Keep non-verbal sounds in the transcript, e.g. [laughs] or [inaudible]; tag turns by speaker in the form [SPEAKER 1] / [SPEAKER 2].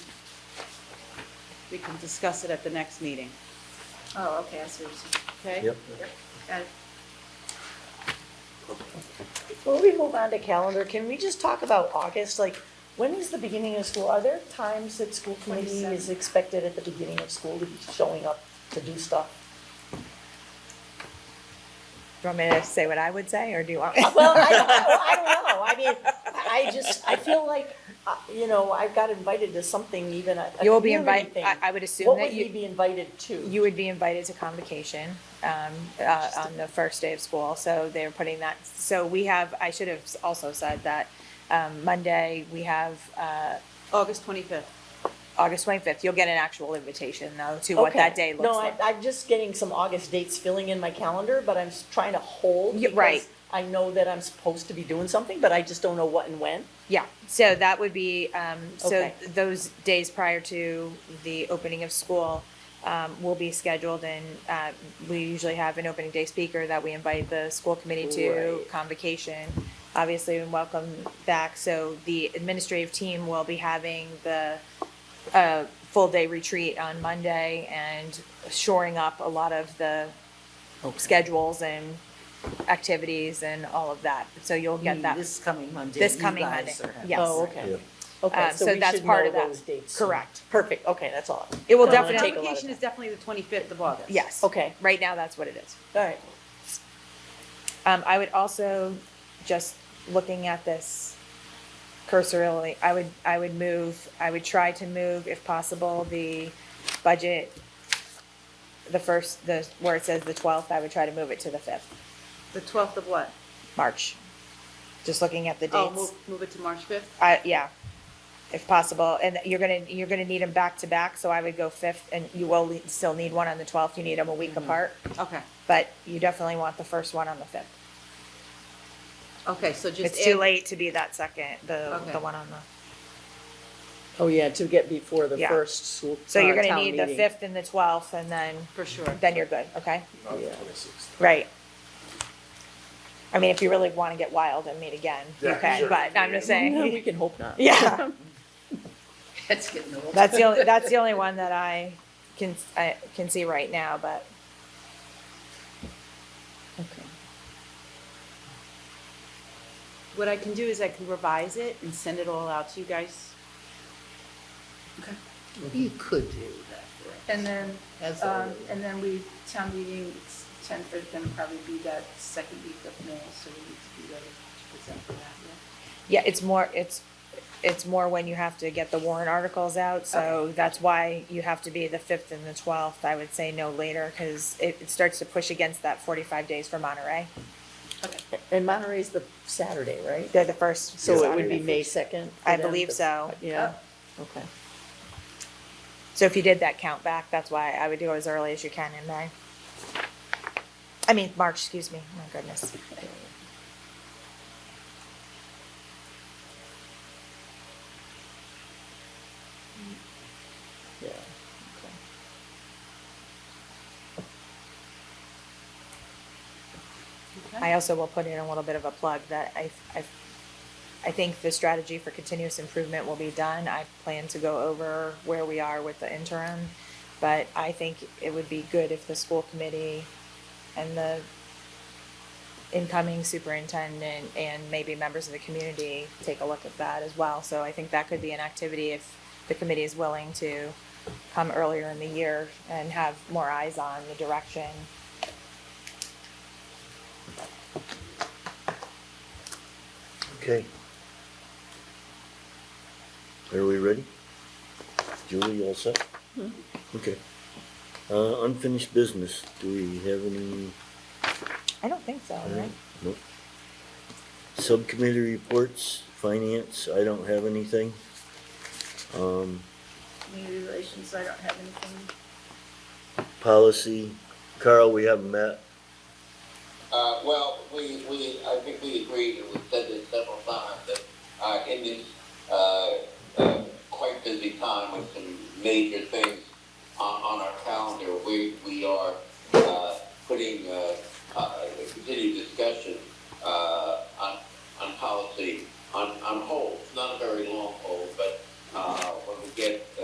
[SPEAKER 1] we can discuss it at the next meeting,
[SPEAKER 2] Oh, okay, I see what you're Uh, saying.
[SPEAKER 1] okay?
[SPEAKER 3] Yep.
[SPEAKER 2] Got it.
[SPEAKER 4] Before we move on to calendar, can we just talk about August? Like, when is the beginning of school? Are there times that school committee is
[SPEAKER 2] 27.
[SPEAKER 4] expected at the beginning of school to be showing up to do stuff?
[SPEAKER 5] Do you want me to say what I would say, or do you want?
[SPEAKER 4] [laughs] Well, I don't know, I don't know. I mean, I I just, I feel like, uh, you know, I got invited to something even a a
[SPEAKER 5] You will be
[SPEAKER 4] community
[SPEAKER 5] invited,
[SPEAKER 4] thing.
[SPEAKER 5] I, I would assume
[SPEAKER 4] What would
[SPEAKER 5] that
[SPEAKER 4] we
[SPEAKER 5] you,
[SPEAKER 4] be invited to?
[SPEAKER 5] you would be invited to convocation, um, uh, on the first day of school, so they're putting that, so we have, I should have also said that, um, Monday, we have, uh,
[SPEAKER 1] August twenty-fifth.
[SPEAKER 5] August twenty-fifth, you'll get an actual invitation, though, to what that
[SPEAKER 4] Okay.
[SPEAKER 5] day looks like.
[SPEAKER 4] No, I, I'm just getting some August dates filling in my calendar, but I'm s- trying to hold.
[SPEAKER 5] Yeah,
[SPEAKER 4] because
[SPEAKER 5] right.
[SPEAKER 4] I know that I'm supposed to be doing something, but I just don't know what and when.
[SPEAKER 5] Yeah, so that would be, um, so
[SPEAKER 4] Okay.
[SPEAKER 5] those days prior to the opening of school, um, will be scheduled and, uh, we usually have an opening day speaker that we invite the school committee to
[SPEAKER 4] Right.
[SPEAKER 5] convocation. Obviously, and welcome back, so the administrative team will be having the, uh, full day retreat on Monday and shoring up a lot of the schedules and activities and all of that, so you'll
[SPEAKER 6] You
[SPEAKER 4] Mm,
[SPEAKER 5] get
[SPEAKER 6] mean
[SPEAKER 5] that.
[SPEAKER 6] This coming Monday.
[SPEAKER 5] This
[SPEAKER 6] you
[SPEAKER 5] coming
[SPEAKER 6] guys
[SPEAKER 5] Monday,
[SPEAKER 6] are-
[SPEAKER 5] yes.
[SPEAKER 4] Oh,
[SPEAKER 3] Yeah.
[SPEAKER 4] okay. Okay,
[SPEAKER 5] Um,
[SPEAKER 4] so
[SPEAKER 5] so
[SPEAKER 4] we
[SPEAKER 5] that's
[SPEAKER 4] should
[SPEAKER 5] part
[SPEAKER 4] know
[SPEAKER 5] of that.
[SPEAKER 4] those dates.
[SPEAKER 5] Correct.
[SPEAKER 4] Perfect, okay, that's all.
[SPEAKER 5] It
[SPEAKER 1] Oh,
[SPEAKER 5] will
[SPEAKER 4] Don't wanna
[SPEAKER 5] definitely,
[SPEAKER 4] take a lot of
[SPEAKER 1] Convocation is definitely the twenty-fifth of August.
[SPEAKER 5] yes.
[SPEAKER 4] Okay,
[SPEAKER 5] Right now, that's what it is.
[SPEAKER 4] all right.
[SPEAKER 5] Um, I would also, just looking at this cursorily, I would, I would move, I would try to move, if possible, the budget, the first, the, where it says the twelfth, I would try to move it to the fifth,
[SPEAKER 1] The twelfth of what?
[SPEAKER 5] March. Just looking at the dates.
[SPEAKER 1] Oh, move, move it to March fifth?
[SPEAKER 5] I, yeah, if possible, and you're gonna, you're gonna need them back to back, so I would go fifth, and you will le- still need one on the twelfth, you need them a week apart,
[SPEAKER 1] Okay,
[SPEAKER 5] but you definitely want the first one on the fifth.
[SPEAKER 1] okay, so just.
[SPEAKER 5] It's too
[SPEAKER 1] add-
[SPEAKER 5] late to be that second, the,
[SPEAKER 1] Okay.
[SPEAKER 5] the one on the,
[SPEAKER 4] Oh, yeah, to get before the
[SPEAKER 5] Yeah.
[SPEAKER 4] first school,
[SPEAKER 5] so you're
[SPEAKER 4] uh,
[SPEAKER 5] gonna
[SPEAKER 4] town
[SPEAKER 5] need the
[SPEAKER 4] meeting.
[SPEAKER 5] fifth and the twelfth, and then,
[SPEAKER 1] For sure.
[SPEAKER 5] then you're good, okay?
[SPEAKER 3] Not the
[SPEAKER 4] Oh, Yeah.
[SPEAKER 3] 26th.
[SPEAKER 5] Right. I mean, if you really wanna get wild and meet again,
[SPEAKER 3] Yeah,
[SPEAKER 5] okay,
[SPEAKER 3] sure.
[SPEAKER 5] but I'm
[SPEAKER 4] [laughs]
[SPEAKER 5] just
[SPEAKER 4] No,
[SPEAKER 5] saying,
[SPEAKER 4] we can hope not.
[SPEAKER 5] yeah.
[SPEAKER 6] That's getting old.
[SPEAKER 5] That's the only, that's the only one that I can, I can see right now, but.
[SPEAKER 4] Okay.
[SPEAKER 1] What I can do is I can revise it and send it all out to you guys.
[SPEAKER 6] You could do that for us.
[SPEAKER 2] And then,
[SPEAKER 6] That's all
[SPEAKER 2] um,
[SPEAKER 6] right.
[SPEAKER 2] and then we, town meeting, it's ten for, gonna probably be that second week of May, so we need to be ready to present for that, yeah.
[SPEAKER 5] Yeah, it's more, it's, it's more when you have to get the warrant articles out, so that's why you have to be the fifth and the twelfth, I would say no later, cause it, it starts to push against that forty-five days for Monterey.
[SPEAKER 4] And Monterey's the Saturday, right?
[SPEAKER 5] They're the first.
[SPEAKER 4] So it would
[SPEAKER 5] Saturday.
[SPEAKER 4] be May second?
[SPEAKER 5] I believe so.
[SPEAKER 4] Yeah, okay.
[SPEAKER 5] So if you did that count back, that's why I would do it as early as you can in May. I mean, March, excuse me, my goodness.
[SPEAKER 4] Yeah.
[SPEAKER 5] I also will put in a little bit of a plug that I, I, I think the strategy for continuous improvement will be done. I plan to go over where we are with the interim. But I think it would be good if the school committee and the incoming superintendent and maybe members of the community take a look at that as well. So I think that could be an activity if the committee is willing to come earlier in the year and have more eyes on the direction.
[SPEAKER 3] Okay. Are we ready? Julie, you all set? Okay. Uh, unfinished business, do we have any?
[SPEAKER 5] I don't think so, right?
[SPEAKER 3] Nope. Subcommittee reports, finance, I don't have anything. Um,
[SPEAKER 2] Community relations, I don't have anything.
[SPEAKER 3] policy, Carl, we haven't met.
[SPEAKER 7] Uh, well, we, we, I think we agreed, and we've said this several times, that, uh, in this, uh, uh, quite busy time with some major things on, on our calendar, we, we are, uh, putting, uh, uh, continued discussion, uh, on, on policy on, on hold, not a very long hold, but, uh, when we get